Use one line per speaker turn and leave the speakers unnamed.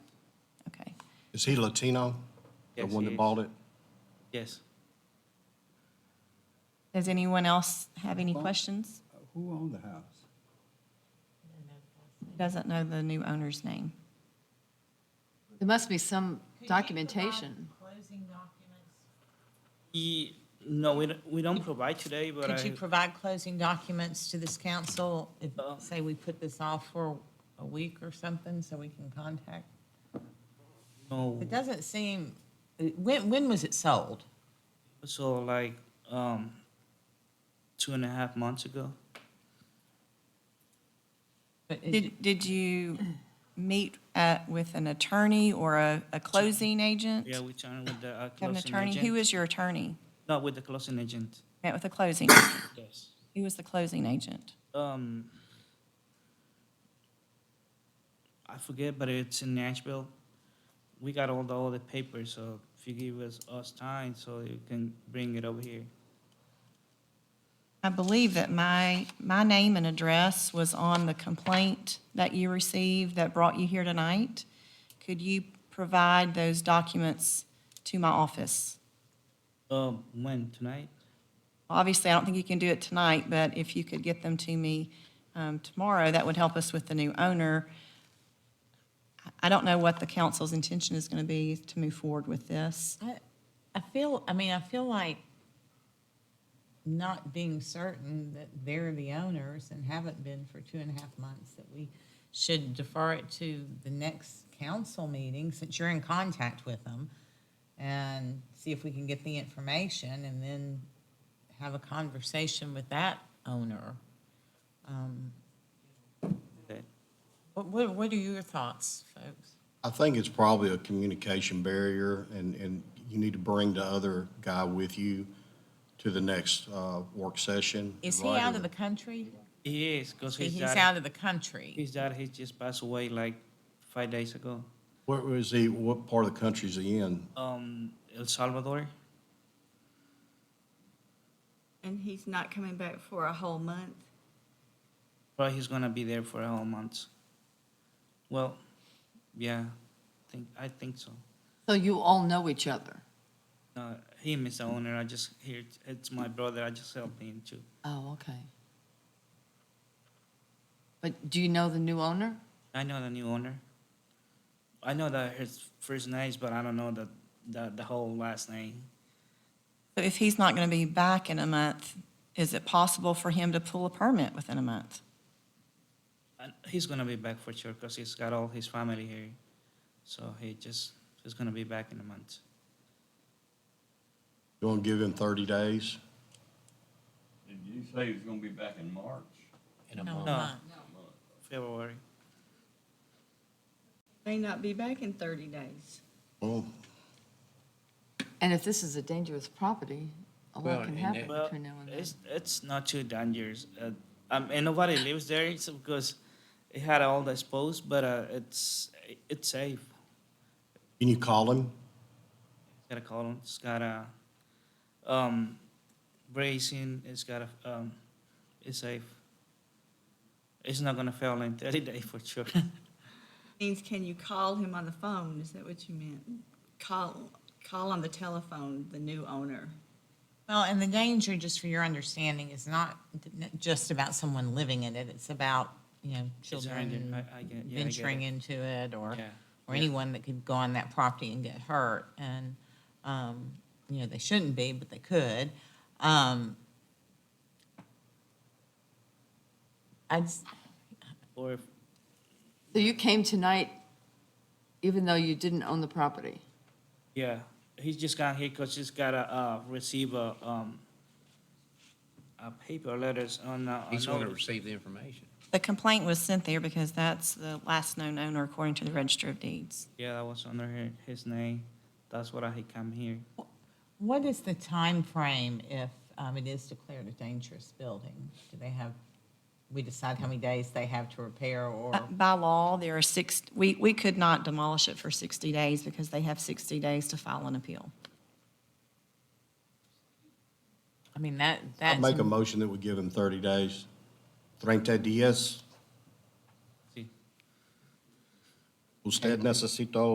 Is he Latino? The
Yes,
one
he
that
is.
bought it?
Yes.
Does anyone else have any questions?
Who owned the house?
Doesn't know the new owner's name.
There must be some documentation.
Closing documents.
He, no, we don't, we don't provide today, but
Could you
I,
provide closing documents to this council if,
Uh.
say, we put this off for a week or something so we can contact?
no,
It doesn't seem, when, when was it sold?
so like, um, two and a half months ago.
But it-
Did, did you meet uh, with an attorney or a, a closing agent?
Yeah, we turned with the uh,
Have an
closing
attorney? Who
agent.
is your attorney?
No, with the closing agent.
Met with a closing?
Yes.
Who was the closing agent?
Um, I forget, but it's in Nashville. We got all the all the papers, so if you give us us time, so you can bring it over here.
I believe that my, my name and address was on the complaint that you received that brought you here tonight. Could you provide those documents to my office?
Um, when tonight?
Obviously, I don't think you can do it tonight, but if you could get them to me um, tomorrow, that would help us with the new owner. I- I don't know what the council's intention is going to be to move forward with this.
I, I feel, I mean, I feel like not being certain that they're the owners and haven't been for two and a half months, that we should defer it to the next council meeting, since you're in contact with them, and see if we can get the information, and then have a conversation with that owner. Um,
Okay.
What, what, what are your thoughts, folks?
I think it's probably a communication barrier, and, and you need to bring the other guy with you to the next uh, work session.
Is he
right?
out of the country?
He is, cause his
He's
dad-
out of the country.
His dad, he just passed away like five days ago.
Where was he, what part of the country is he in?
Um, El Salvador.
And he's not coming back for a whole month?
But he's gonna be there for a whole month. Well, yeah, think I think so.
So you all know each other?
No, him is the owner. I just here. It's my brother. I just helped him too.
Oh, okay. But do you know the new owner?
I know the new owner. I know that his first names, but I don't know the the, the whole last name.
So if he's not going to be back in a month, is it possible for him to pull a permit within a month?
And he's gonna be back for sure because he's got all his family here. So he just he's gonna be back in a month.
You want to give him 30 days?
Did you say he was gonna be back in March?
No,
No.
month.
February.
May not be back in 30 days.
Well,
And if this is a dangerous property, a lot can happen
Well,
between now and then.
it's it's not too dangerous. Uh, um, and nobody lives there it's because it had all the exposed, but uh, it's it's safe.
can you call him?
It's got a column. It's got a um, bracing. It's got a. Um, it's safe. It's not gonna fail in 30 days for sure.
Means can you call him on the phone? Is that what you meant? Call, call on the telephone, the new owner.
Well, and the danger, just for your understanding, is not just about someone living in it. It's about, you know,
It's around
children
there. I, I get, yeah, I get
venturing
it.
into it or,
Yeah.
or
Yeah.
anyone that could go on that property and get hurt. And, um, you know, they shouldn't be, but they could. Um, I'd, s-
Or if,
So you came tonight even though you didn't own the property?
yeah, he's just got here because he's got a uh, receive a um, a paper letters on. Uh,
He's
on
going to
notice.
receive the information.
The complaint was sent there because that's the last known owner according to the Register of Deeds.
Yeah, that was under hi- his name. That's why he come here.
what is the time frame if um, it is declared a dangerous building? Do they have, we decide how many days they have to repair or?
Uh, By law, there are six, we, we could not demolish it for 60 days because they have 60 days to file an appeal.
I mean, that,
I'd
that's.
make a motion that we give him 30 days. 30 días.
Sí.
Usted necesita